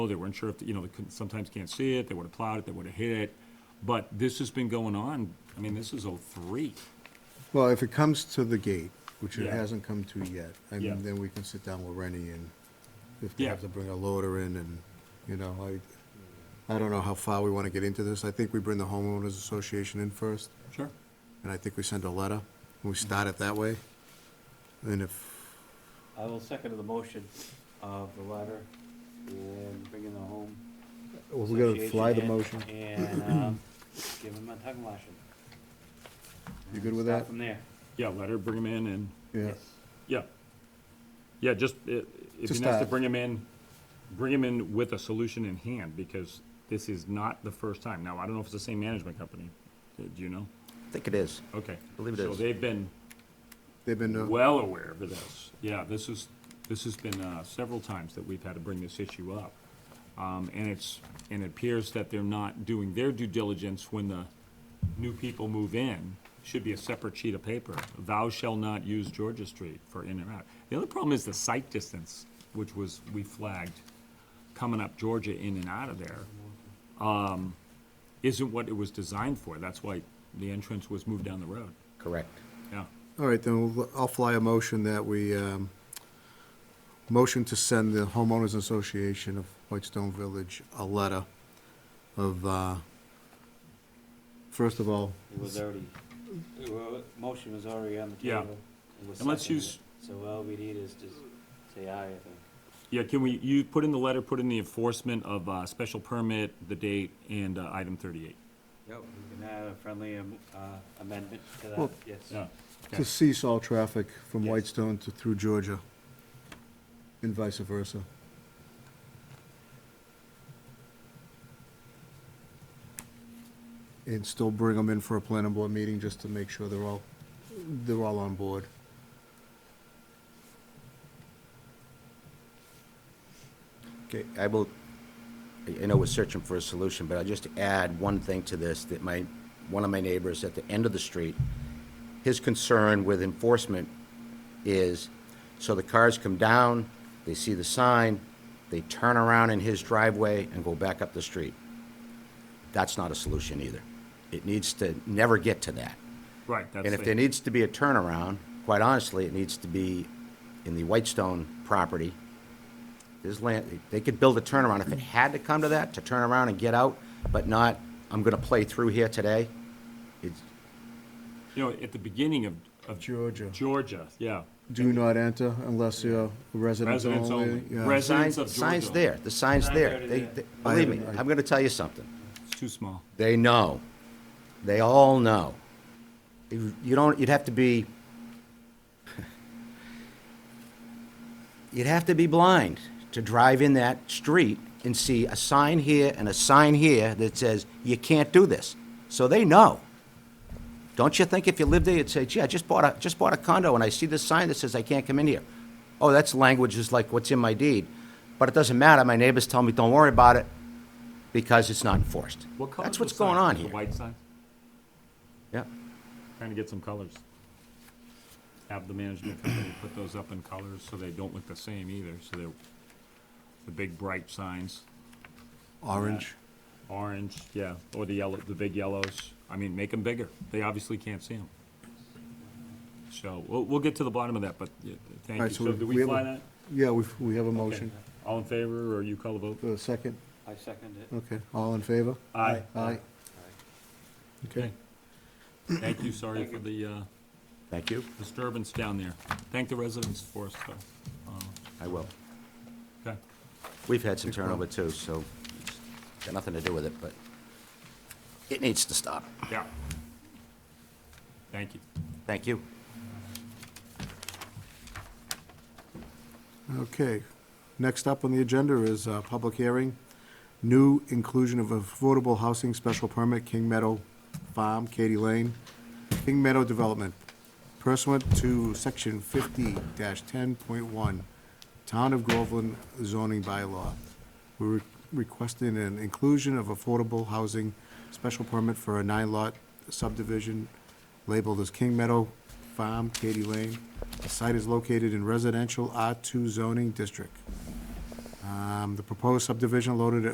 Oh, They weren't sure if, you know, they couldn't, sometimes can't see it, they would've plowed it, they would've hit it, but this has been going on, I mean, this is oh oh-three. Well, if it comes to the gate, which it Yeah. hasn't come to yet, I Yeah. mean, then we can sit down with Rennie and if they Yeah. have to bring a loader in and, you know, I, I don't know how far we want to get into this. I think we bring the homeowners association in first, Sure. and I think we send a letter, and we start it that way. And if, I will second the motion of the letter and bringing the home. well, we're gonna fly the association in motion. And, um, give him a tongue lashing. You good with Start that? From there. Yeah, let her bring him in and, Yeah, Yes. yeah. Yeah, just, i- if Just he has to that. bring him in, bring him in with a solution in hand, because this is not the first time. Now, I don't know if it's the same management company, do you know? I think it is. Okay. Believe it So is. they've been they've been, uh, well aware of this. Yeah, this is, this has been uh, several times that we've had to bring this issue up. Um, And it's, and it appears that they're not doing their due diligence when the new people move in. Should be a separate sheet of paper. Thou shall not use Georgia Street for in or out. The other problem is the site distance, which was, we flagged, coming up Georgia in and out of there um, isn't what it was designed for. That's why the entrance was moved down the road. Correct. Yeah. all right, then we'll- I'll fly a motion that we, um, motion to send the homeowners association of Whitestone Village a letter of, uh, first of all, It was already, it wa- motion was already on the Yeah. table. It was And let's seconded. use- So all we need is just say aye, I think. Yeah, can we, you put in the letter, put in the enforcement of uh, special permit, the date, and uh, item 38. Yep. We can add a friendly am- uh, amendment to that, Well- yes. Yeah. to cease all traffic from Yes. Whitestone to, through Georgia, and vice versa. And still bring them in for a planning board meeting, just to make sure they're all, they're all on board. Okay, I will, I- I know we're searching for a solution, but I'll just add one thing to this, that my, one of my neighbors at the end of the street, his concern with enforcement is, so the cars come down, they see the sign, they turn around in his driveway and go back up the street. That's not a solution either. It needs to never get to that. Right, that's And if there the, needs to be a turnaround, quite honestly, it needs to be in the Whitestone property. There's land, they could build a turnaround if it had to come to that, to turn around and get out, but not, I'm gonna play through here today. It's, you know, at the beginning of, of Georgia. Georgia, yeah. Do not enter unless you're residents Residents only. only. yeah. Res- sign, Residents of sign's Georgia. there, the sign's Sign's there. already They, there. they- believe me, I'm gonna tell you something. It's too small. They know. They all know. You you don't, you'd have to be, you'd have to be blind to drive in that street and see a sign here and a sign here that says, you can't do this. So they know. Don't you think if you lived there, you'd say, gee, I just bought a, just bought a condo and I see this sign that says I can't come in here? Oh, that's language is like what's in my deed. But it doesn't matter. My neighbors tell me, don't worry about it because it's not enforced. What color's That's the what's going sign? on The here. White sign, Yeah. trying to get some colors. Have the management company put those up in colors so they don't look the same either, so they're the big bright signs. Orange. orange, yeah, or the yellow, the big yellows. I mean, make them bigger. They obviously can't see them. So we'll, we'll get to the bottom of that, but yeah, thank you. Alright, so So we- do we we have fly a- that? Yeah, we, we have a motion. Okay. All in favor, or you call the vote? The second, I second it. okay, all in favor? Aye. Aye. Okay. Thank you, sorry Thank for you. the uh, Thank you. disturbance down there. Thank the residents for us, though. I will. Okay, We've had some turnover too, so it's got nothing to do with it, but it needs to stop. yeah. Thank you. Thank you. Okay. Next up on the agenda is a public hearing, new inclusion of affordable housing special permit, King Meadow Farm, Katy Lane, King Meadow Development, pursuant to section fifty ten point one, Town of Groveland zoning bylaw. We're re- requesting an inclusion of affordable housing special permit for a nine-lot subdivision labeled as King Meadow Farm, Katy Lane. The site is located in residential R2 zoning district. Um, The proposed subdivision loaded at